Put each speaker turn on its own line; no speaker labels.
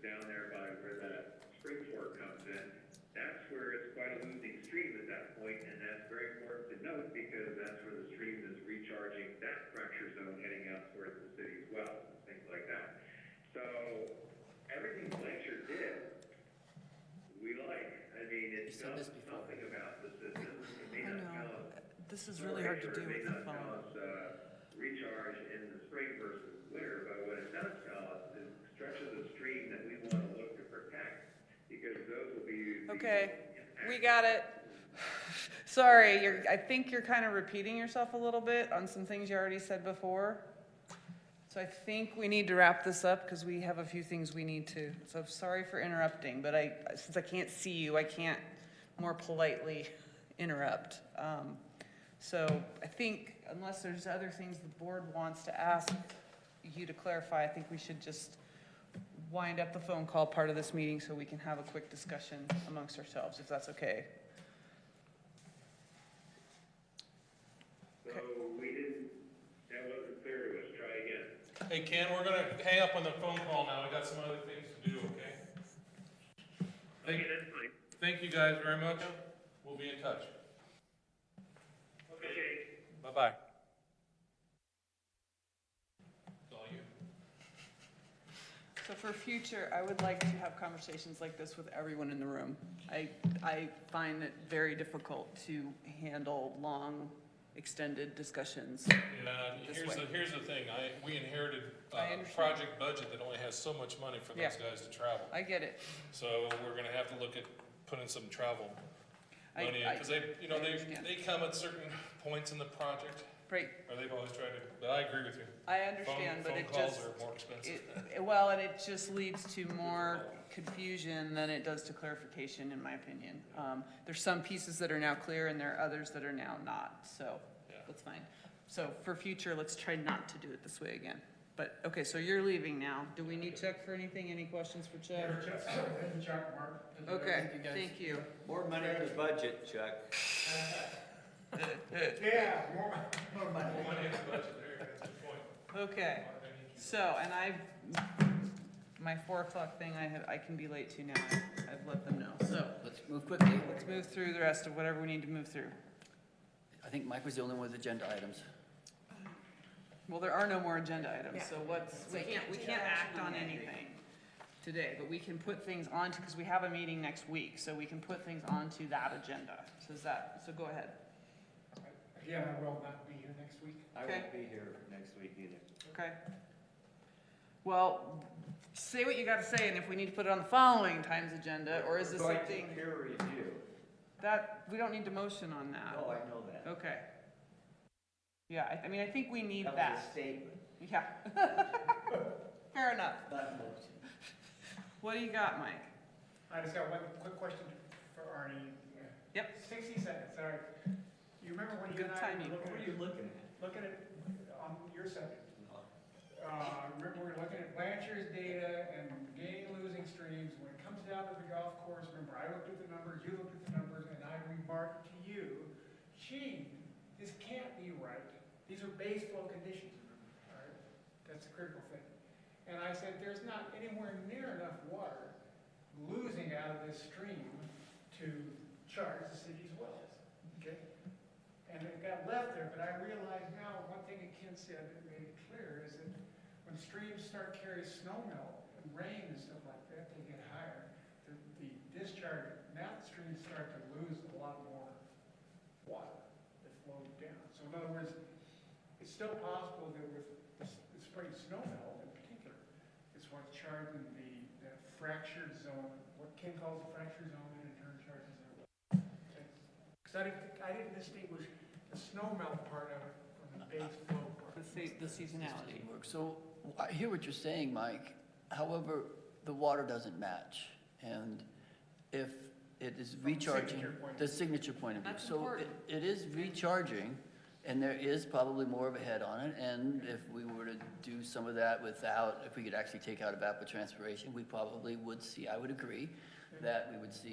down there by where that spring fork comes in, that's where it's quite a losing stream at that point, and that's very important to note because that's where the stream is recharging that fracture zone heading out towards the city as well, things like that. So, everything Blanchard did, we like, I mean,
You
it
said
tells
this
us
before.
something about the system, it may
I
not
know.
tell us
This is really hard to do with the phone.
us, uh, recharge in the spring versus winter, but what it does tell us is stretches of stream that we want to look to protect, because those will be. the
Okay,
impacted.
we got it. Sorry, you're, I think you're kind of repeating yourself a little bit on some things you already said before. So I think we need to wrap this up because we have a few things we need to. So I'm sorry for interrupting, but I, since I can't see you, I can't more politely interrupt. Um, So I think unless there's other things the board wants to ask you to clarify, I think we should just wind up the phone call part of this meeting so we can have a quick discussion amongst ourselves, if that's okay.
So we didn't, that wasn't clear to us, try again.
Hey Ken, we're gonna hang up on the phone call now, I got some other things to do, okay? Thank,
Okay, that's fine.
thank you guys very much, we'll be in touch,
Okay.
bye-bye. It's all you.
So for future, I would like to have conversations like this with everyone in the room. I, I find it very difficult to handle long, extended discussions.
Yeah, and
This
here's the,
way.
here's the thing, I, we inherited
I
a
understand.
project budget that only has so much money for those
Yeah.
guys to travel.
I get it.
So we're gonna have to look at putting some travel
I-
money in,
I-
because they, you know,
I
they,
understand.
they come at certain points in the project,
Right,
or they've always tried to, but I agree with you.
I
Phone-
understand, but it
Phone calls
just,
are more expensive.
it, well, and it just leads to more confusion than it does to clarification, in my opinion. Um, there's some pieces that are now clear and there are others that are now not, so
Yeah.
that's fine. So for future, let's try not to do it this way again. But, okay, so you're leaving now. Do we need Chuck for anything? Any questions for Chuck? Okay, thank you.
More money in the budget, Chuck.
Okay, so, and I, my four o'clock thing, I have, I can be late to now. I've- I've let them know, so.
Let's move quickly.
Let's move through the rest of whatever we need to move through.
I think Mike was the only one with agenda items.
Well, there are no more agenda items, so what's, we can't, we can't act on anything today, but we can put things onto, because we have a meeting next week, so we can put things onto that agenda. So is that, so go ahead.
Again, I will not be here next week.
I
Okay.
won't be here next week either.
Okay. Well, say what you gotta say, and if we need to put it on the following times agenda, or is this
We're going to
something
Peer review.
that, we don't need to motion on
No,
that?
I know that.
Okay. Yeah, I, I mean, I think we need
That was a
that.
statement,
Yeah. Fair enough.
not a motion.
What do you got, Mike?
I just got one quick question for Arnie.
Yep.
Sixty seconds, sorry. You remember when you
Good
and I
timing.
were looking
What are
at,
you looking at?
looking at, on your subject? Uh, remember we were looking at Blanchard's data and gaining, losing streams. When it comes down to the golf course, remember, I looked at the numbers, you looked at the numbers, and I remarked to you, gee, this can't be right. These are base flow conditions, remember, all right? That's the critical thing. And I said, there's not anywhere near enough water losing out of this stream to charge the city's wells, okay? And it got left there, but I realize now, one thing that Ken said that made it clear is that when streams start carrying snow melt and rain and stuff like that, they get higher. The, the discharge, now the streams start to lose a lot more water that flowed down. So in other words, it's still possible that with the s- the spring snow melt in particular, it's what's charging the, that fractured zone, what Ken calls the fractured zone, and in turn charges it. Because I didn't, I didn't distinguish the snow melt part of it from the base flow part.
The se- the seasonality.
Work. So I hear what you're saying, Mike. However, the water doesn't match. And if it is
From the
recharging,
signature point of
the signature point of view.
That's
So it-
important.
it is recharging and there is probably more of a head on it. And if we were to do some of that without, if we could actually take out evapotranspiration, we probably would see, I would agree, that we would see